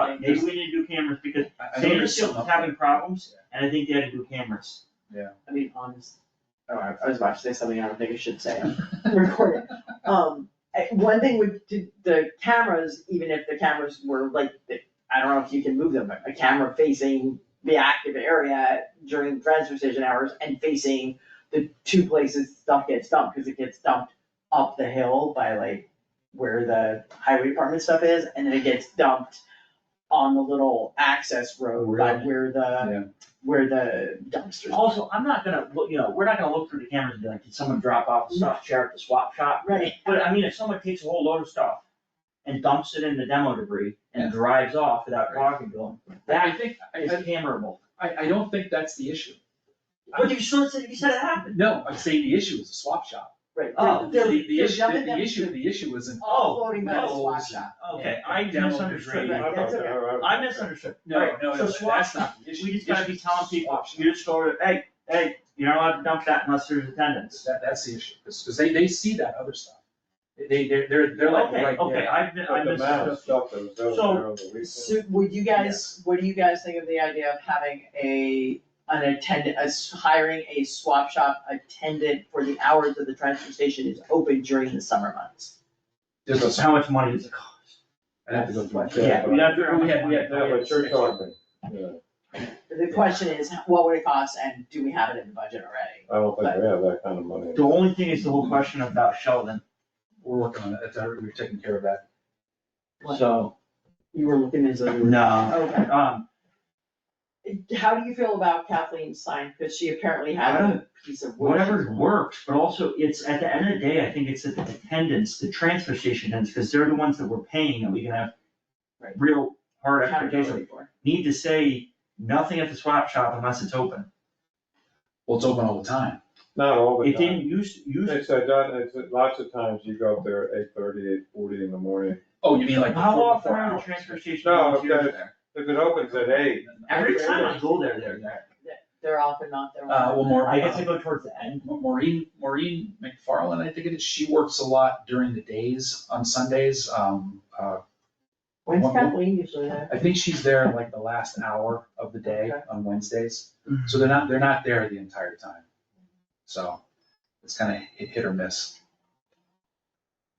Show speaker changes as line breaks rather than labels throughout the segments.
I mean, maybe we need to do cameras because Sandersfield was having problems, and I think they had to do cameras.
I mean, honest,
Oh, I I was about to say something I don't think I should say.
recorded. Um, I- one thing with the- the cameras, even if the cameras were like, I don't know if you can move them, but a camera facing the active area during transfer station hours and facing the two places stuff gets dumped, cause it gets dumped up the hill by like where the highway department stuff is, and then it gets dumped on the little access road by
Really?
where
Yeah.
the, where the dumpsters.
Also, I'm not gonna, look. you know, we're not gonna look through the cameras and be like, did someone drop off the stuff, share at the swap shop?
Right.
But I mean, if someone takes a whole load of stuff and dumps it in the demo debris
Yeah.
and drives off without talking to them,
I
that
think,
is
I,
cameraable.
I, I don't think that's the issue.
But you sure said, you said it happened.
No, I'm saying the issue is a swap shop.
Right.
Oh,
The,
They're-
the
they're
issue,
dumping
the
them
issue,
to-
the issue isn't.
Oh,
Offloading by the swap shop.
Okay, I
Demo
misunderstood.
debris.
Right, that's okay.
I misunderstood.
No,
Alright,
no,
so
no,
swap-
that's not the issue.
We just
The
gotta
issue
be
is
telling
swap
people,
shop.
you just go, to, hey, hey, you're not allowed to dump that unless there's attendance.
That, that's the issue, because, they, they see that other stuff. They, they're, they're, they're like,
Okay,
right
okay,
there.
I've, mi- I
But the amount
misunderstood.
of stuff that was over
So-
there on the weekend.
So would you guys, what do you guys think of the idea of having a, an attendant, a s hiring a swap shop attendant for the hours that the transfer station is open during the summer months?
There's a-
How much money does it cost?
I'd have to go through. my-
Yeah,
Yeah, we have to, we had, we
Yeah,
had.
but you're talking, yeah,
The question is, what would it cost and do we have it in the budget already?
I don't think we have that kind of money.
The only thing is the whole question about Sheldon,
We're working on it, that's, already- we're taking care of that.
What?
so,
You were looking into
no,
Okay,
um,
how do you feel about Kathleen's sign, cause she apparently had a piece of wood.
whatever works, but also it's, at the end of the day, I think it's the attendance, the transfer station attendants, because they're the ones that we're paying that we can have
Right.
real hard expectations.
Accountability for.
Need to say nothing at the swap shop unless it's open.
Well, it's open all the time.
Not all the
It
time.
didn't use, use,
It's a done, it's a- lots of times you go up there at eight thirty, eight forty in the morning.
Oh, you mean like.
how
before-
often
before
are the
hours?
transfer station
No,
volunteers
okay.
there?
If it opens at eight,
Every time I go there, they're there.
They're often not, they're
Uh, well, more.
I guess I go towards the end.
And Maureen, Maureen McFarland, I think it is, she works a lot during the days on Sundays. Um, uh,
When's
Well,
Kathleen usually there?
I think she's there like the last hour of the day
Okay.
on Wednesdays. So they're not, they're not there the entire time. So it's kind of hit or miss.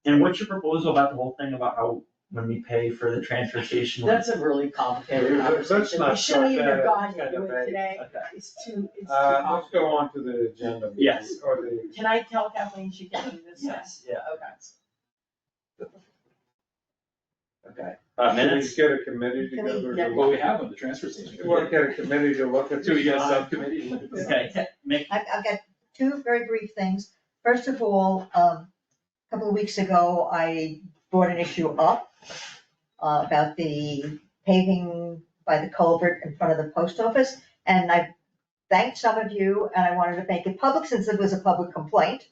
And what's your proposal about the whole thing about how, when we pay for the transfer station?
That's a really complicated
Let's
conversation, we
not
shouldn't
start
even
that
have gotten
kind of
into it
thing.
today,
Okay.
it's too, it's too
uh, let's
complicated.
go on to the agenda.
Yes.
Or the,
Can I tell Kathleen she can do this?
Yes, yeah.
Okay.
Okay.
Uh,
should
minutes?
we get a committee together?
Yeah.
to-
Well, we have them, the transfer station.
You wanna get a committee to look at.
Do we
this?
got a subcommittee? Look at this.
Okay, make,
I've, I've got two very brief things. First of all, um, a couple of weeks ago, I brought an issue up uh, about the paving by the culvert in front of the post office, and I thanked some of you, and I wanted to make it public since it was a public complaint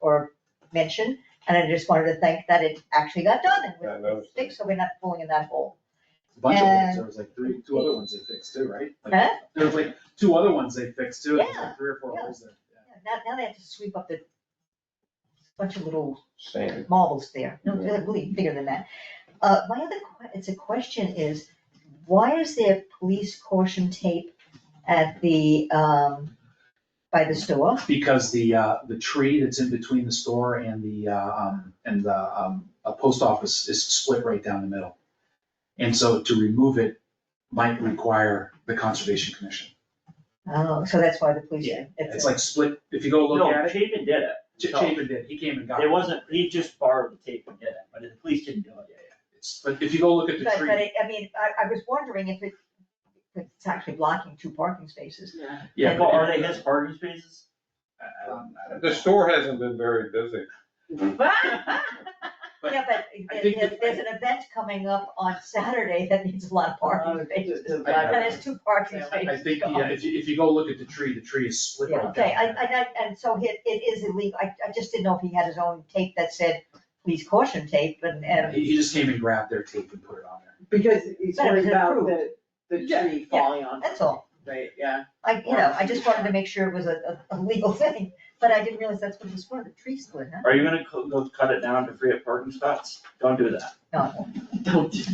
or mention, and I just wanted to thank that it actually got done
Yeah,
and
that
was
was-
fixed, so we're not falling in that hole.
A bunch of ones, there was like three, two other ones they fixed too, right? Like,
Huh?
There was like two other ones they fixed too, There was like three or four
Yeah,
holes there.
Now, now they have to sweep up the bunch of little
Same.
marbles there, no, they're really bigger than that. Uh, my other, que- it's a question is, why is there police caution tape at the, um, by the store?
Because the, uh, the tree that's in between the store and the, uh, um, and the, um, a post office is split right down the middle. And so to remove it might require the Conservation Commission.
Oh, so that's why the police.
Yeah,
it's
It's like split, if you go look
no,
at it,
Chapin did it.
Ch- Chapin did, he came and got it.
It wasn't, he just borrowed the tape and did it, but the police didn't do it.
It's- But if you go look at
But,
the
but
tree,
it, I mean, I, I was wondering if it, if it's actually blocking two parking spaces.
yeah.
Like,
but-
Are they his parking spaces?
I- I don't- I don't
The
know.
store hasn't been very busy.
But
Yeah, but
I
there-
think
there-
that-
there's an event coming up on Saturday that needs a lot of
Uh,
parking
Uh,
spaces. And there's two parking
I-
spaces.
I think,
gone.
yeah, if you, if you go look at the tree, the tree is split right down.
Okay, I,
the middle.
I, I- and so it, it is illegal, I, I just didn't know if he had his own tape that said, please caution tape, and, and,
He, he just came and grabbed their tape and put it on there.
Because it's
But it was
worried about
approved.
the, the
Yeah,
tree
yeah.
falling on,
that's all.
right, yeah.
I, you know, I just wanted to make sure it was a, a a legal thing, but I didn't realize that's what it was for, the tree split, huh?
Are you gonna co- go cut it down to free up parking spots? Don't do that.
No, I won't.
Don't do